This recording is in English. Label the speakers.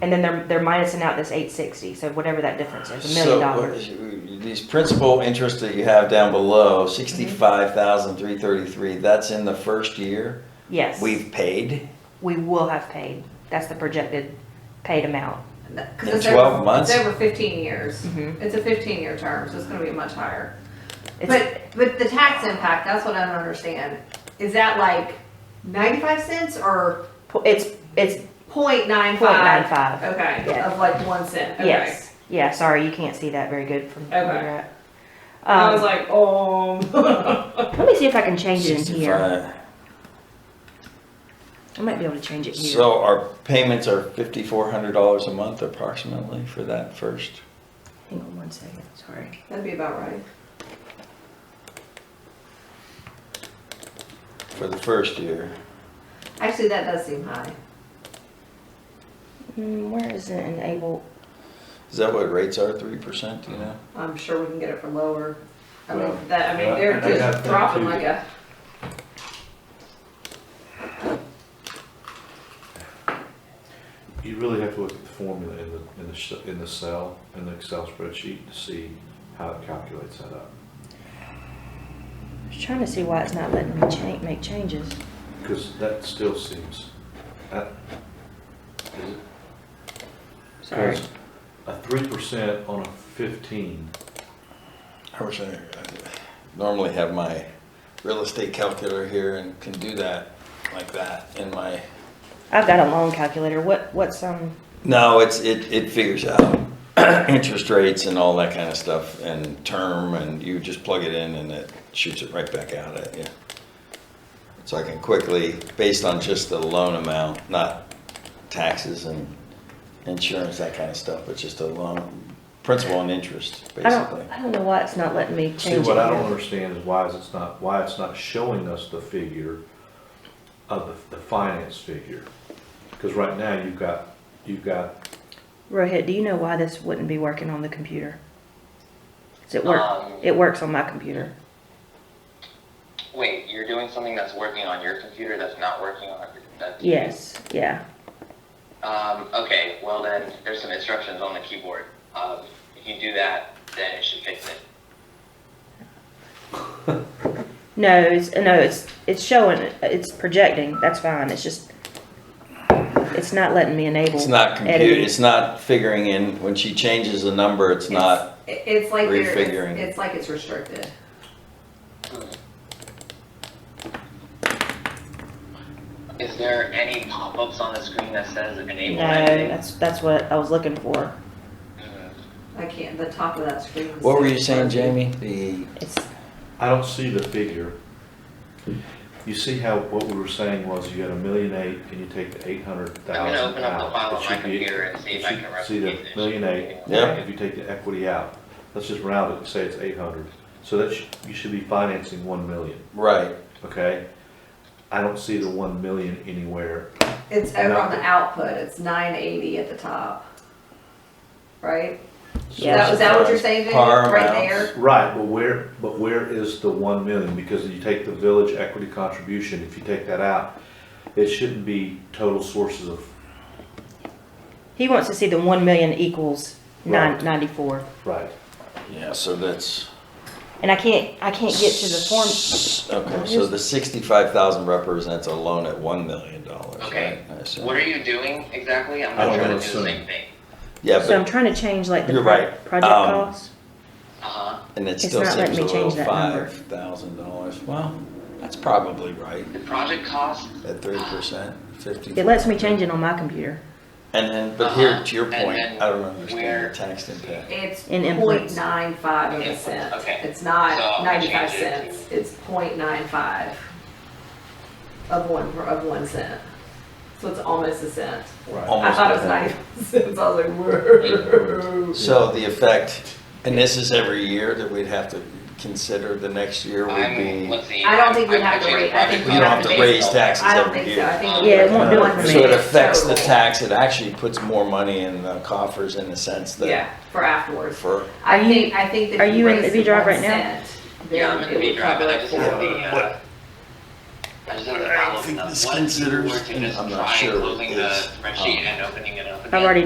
Speaker 1: And then they're, they're minusing out this eight sixty, so whatever that difference is, a million
Speaker 2: So,
Speaker 1: dollars.
Speaker 2: what- These principal interest that you have down below,
Speaker 1: Mm-hmm.
Speaker 2: sixty-five thousand, three thirty-three, that's in the first year
Speaker 1: Yes, we
Speaker 2: we've paid?
Speaker 1: will have paid. That's the projected paid amount.
Speaker 2: In
Speaker 3: Cause it's
Speaker 2: 12
Speaker 3: over,
Speaker 2: months?
Speaker 3: it's over fifteen years.
Speaker 1: Mhm.
Speaker 3: It's a fifteen-year term, so it's gonna be much higher.
Speaker 1: It's,
Speaker 3: But, but the tax impact, that's what I don't understand. Is that like ninety-five cents or
Speaker 1: po- it's, it's,
Speaker 3: point nine five?
Speaker 1: 0.95.
Speaker 3: Okay,
Speaker 1: Yeah.
Speaker 3: of like one cent, okay.
Speaker 1: yes, yeah, sorry, you can't see that very good from where
Speaker 3: Okay.
Speaker 1: you're at.
Speaker 3: I was
Speaker 1: Um,
Speaker 3: like, oh.
Speaker 1: let me see if I can change it in here.
Speaker 2: 65.
Speaker 1: I might be able to change it here.
Speaker 2: So our payments are fifty-four hundred dollars a month approximately for that first.
Speaker 1: Hang on one second, sorry.
Speaker 3: That'd be about right.
Speaker 2: For the first year,
Speaker 3: Actually, that does seem high.
Speaker 1: Hmm, where is it enabled?
Speaker 2: is that what rates are, three percent, you know?
Speaker 3: I'm sure we can get it for lower. I
Speaker 4: Well,
Speaker 3: mean, that, I
Speaker 4: yeah,
Speaker 3: mean, they're
Speaker 4: and I got
Speaker 3: just
Speaker 4: that
Speaker 3: dropping
Speaker 4: too.
Speaker 3: like a,
Speaker 4: You really have to look at the formula in the, in the, sh- in the cell, in the Excel spreadsheet to see how it calculates that up.
Speaker 1: I was trying to see why it's not letting me change, make changes.
Speaker 4: Because that still seems, that, is it?
Speaker 1: Sorry.
Speaker 4: 'cause A three percent on a fifteen,
Speaker 2: Mm-hmm. I wish I, I normally have my real estate calculator here and can do that like that in my,
Speaker 1: I've got a loan calculator. What, what's, um,
Speaker 2: no, it's, it, it figures out interest rates and all that kind of stuff and term and you just plug it in and it shoots it right back out at you. So I can quickly, based on just the loan amount, not taxes and insurance, that kind of stuff, but just a loan, principal and interest,
Speaker 1: I don't,
Speaker 2: basically.
Speaker 1: I don't know why it's not letting me
Speaker 4: see,
Speaker 1: change it
Speaker 4: what I don't
Speaker 1: here.
Speaker 4: understand is why is it's not, why it's not showing us the figure of the, the finance figure. Because right now, you've got, you've got,
Speaker 1: Rohit, do you know why this wouldn't be working on the computer? Does it work?
Speaker 5: Um,
Speaker 1: It works on my computer.
Speaker 5: Wait, you're doing something that's working on your computer that's not working on that.
Speaker 1: Yes, yeah.
Speaker 5: Um, okay, well then, there's some instructions on the keyboard. Um, if you do that, then it should fix it.
Speaker 1: No, it's, no, it's, it's showing, it's projecting. That's fine. It's just, it's not letting me enable.
Speaker 2: It's not compute,
Speaker 1: editing.
Speaker 2: it's not figuring in, when she changes the number, it's not,
Speaker 3: it- it's like they're,
Speaker 2: Refiguring.
Speaker 3: it's- it's like it's restricted.
Speaker 5: Is there any pop-ups on the screen that says enable
Speaker 1: No,
Speaker 5: editing?
Speaker 1: that's, that's what I was looking for.
Speaker 3: I can't, the top of that screen. is-
Speaker 2: what were you saying, Jamie? The,
Speaker 1: It's,
Speaker 4: I don't see the figure. You see how, what we were saying was you had a million eight, and you take the eight hundred
Speaker 5: I'm
Speaker 4: thousand
Speaker 5: gonna
Speaker 4: out.
Speaker 5: open up the file
Speaker 4: It
Speaker 5: on my
Speaker 4: should be-
Speaker 5: computer and see
Speaker 4: you
Speaker 5: if I
Speaker 4: should
Speaker 5: can replicate
Speaker 4: See the
Speaker 5: this.
Speaker 4: million eight,
Speaker 2: Yeah.
Speaker 4: if you take the equity out, let's just round it, say it's eight hundred, so that, sh- you should be financing one million,
Speaker 2: right,
Speaker 4: okay? I don't see the one million anywhere,
Speaker 3: It's over on the output, it's nine eighty at the top. Right?
Speaker 1: Yeah.
Speaker 3: That- Is that what you're saying, Jamie,
Speaker 2: Par
Speaker 3: right
Speaker 2: amounts.
Speaker 3: there?
Speaker 4: right, but where, but where is the one million, because you take the village equity contribution, if you take that out, it shouldn't be total sources of,
Speaker 1: he wants to see the one million equals
Speaker 4: Right.
Speaker 1: nine, ninety-four.
Speaker 4: right,
Speaker 2: yeah, so that's.
Speaker 1: And I can't, I can't get to the form.
Speaker 2: Okay, so the sixty-five thousand represents a loan at one million dollars, right?
Speaker 5: Okay,
Speaker 2: I assume.
Speaker 5: what are you doing exactly? I'm
Speaker 4: I don't
Speaker 5: not trying
Speaker 4: know,
Speaker 5: to do
Speaker 4: so-
Speaker 5: the same thing.
Speaker 2: Yeah,
Speaker 1: So I'm
Speaker 2: but,
Speaker 1: trying to change like the
Speaker 2: You're
Speaker 1: pro-
Speaker 2: right.
Speaker 1: project
Speaker 2: Um,
Speaker 1: costs.
Speaker 5: Uh-huh.
Speaker 2: and it
Speaker 1: It's
Speaker 2: still
Speaker 1: not letting
Speaker 2: seems a
Speaker 1: me
Speaker 2: little
Speaker 1: change that number.
Speaker 2: five thousand dollars, well, that's probably right,
Speaker 5: The project cost,
Speaker 2: at three percent, fifty.
Speaker 1: It lets me change it on my computer.
Speaker 2: And then, but here, to your
Speaker 5: Uh-huh, and
Speaker 2: point,
Speaker 5: then
Speaker 2: I don't
Speaker 5: where-
Speaker 2: understand the tax impact.
Speaker 3: It's
Speaker 1: In
Speaker 3: point
Speaker 1: influence.
Speaker 3: nine five of a
Speaker 5: Influence,
Speaker 3: cent.
Speaker 5: okay.
Speaker 3: It's
Speaker 5: So
Speaker 3: not
Speaker 5: I'll change
Speaker 3: ninety-five
Speaker 5: it to-
Speaker 3: cents, it's point nine five of one, of one cent. So it's almost a cent.
Speaker 4: right.
Speaker 2: Almost
Speaker 3: I thought it was
Speaker 2: nothing.
Speaker 3: ninety-five cents, I was like, whoa.
Speaker 2: So the effect, and this is every year that we'd have to consider, the next year would
Speaker 5: I'm,
Speaker 2: be,
Speaker 5: let's see.
Speaker 3: I don't think we
Speaker 5: I'm
Speaker 3: have to
Speaker 5: pitching
Speaker 3: rate- I think
Speaker 5: project
Speaker 2: we don't have
Speaker 5: cost
Speaker 2: to
Speaker 5: based
Speaker 2: raise
Speaker 5: on-
Speaker 2: taxes
Speaker 3: I don't
Speaker 2: every
Speaker 3: think so, I
Speaker 2: year.
Speaker 3: think.
Speaker 1: Yeah, it won't do it for
Speaker 2: So it
Speaker 1: me.
Speaker 2: affects the
Speaker 3: Total.
Speaker 2: tax, it actually puts more money in the coffers in the sense that,
Speaker 3: Yeah, for afterwards.
Speaker 2: for,
Speaker 1: Are
Speaker 3: I
Speaker 1: you-
Speaker 3: think, I think that.
Speaker 1: are
Speaker 3: if
Speaker 1: you in
Speaker 3: raised
Speaker 1: the
Speaker 3: it
Speaker 1: V-Drive right
Speaker 3: one
Speaker 1: now?
Speaker 3: cent,
Speaker 5: Yeah, I'm
Speaker 3: then
Speaker 5: gonna
Speaker 3: it
Speaker 5: be
Speaker 3: would
Speaker 5: driving, I
Speaker 3: cover
Speaker 5: just
Speaker 3: it
Speaker 5: have the,
Speaker 3: for-
Speaker 5: uh, I just have the
Speaker 2: I don't
Speaker 5: problem
Speaker 2: think
Speaker 5: of
Speaker 2: this
Speaker 5: what if you
Speaker 2: considers-
Speaker 5: were to just
Speaker 2: I'm not
Speaker 5: try
Speaker 2: sure what um,
Speaker 5: closing
Speaker 2: it
Speaker 5: the
Speaker 2: is.
Speaker 5: spreadsheet and opening it up
Speaker 1: I've already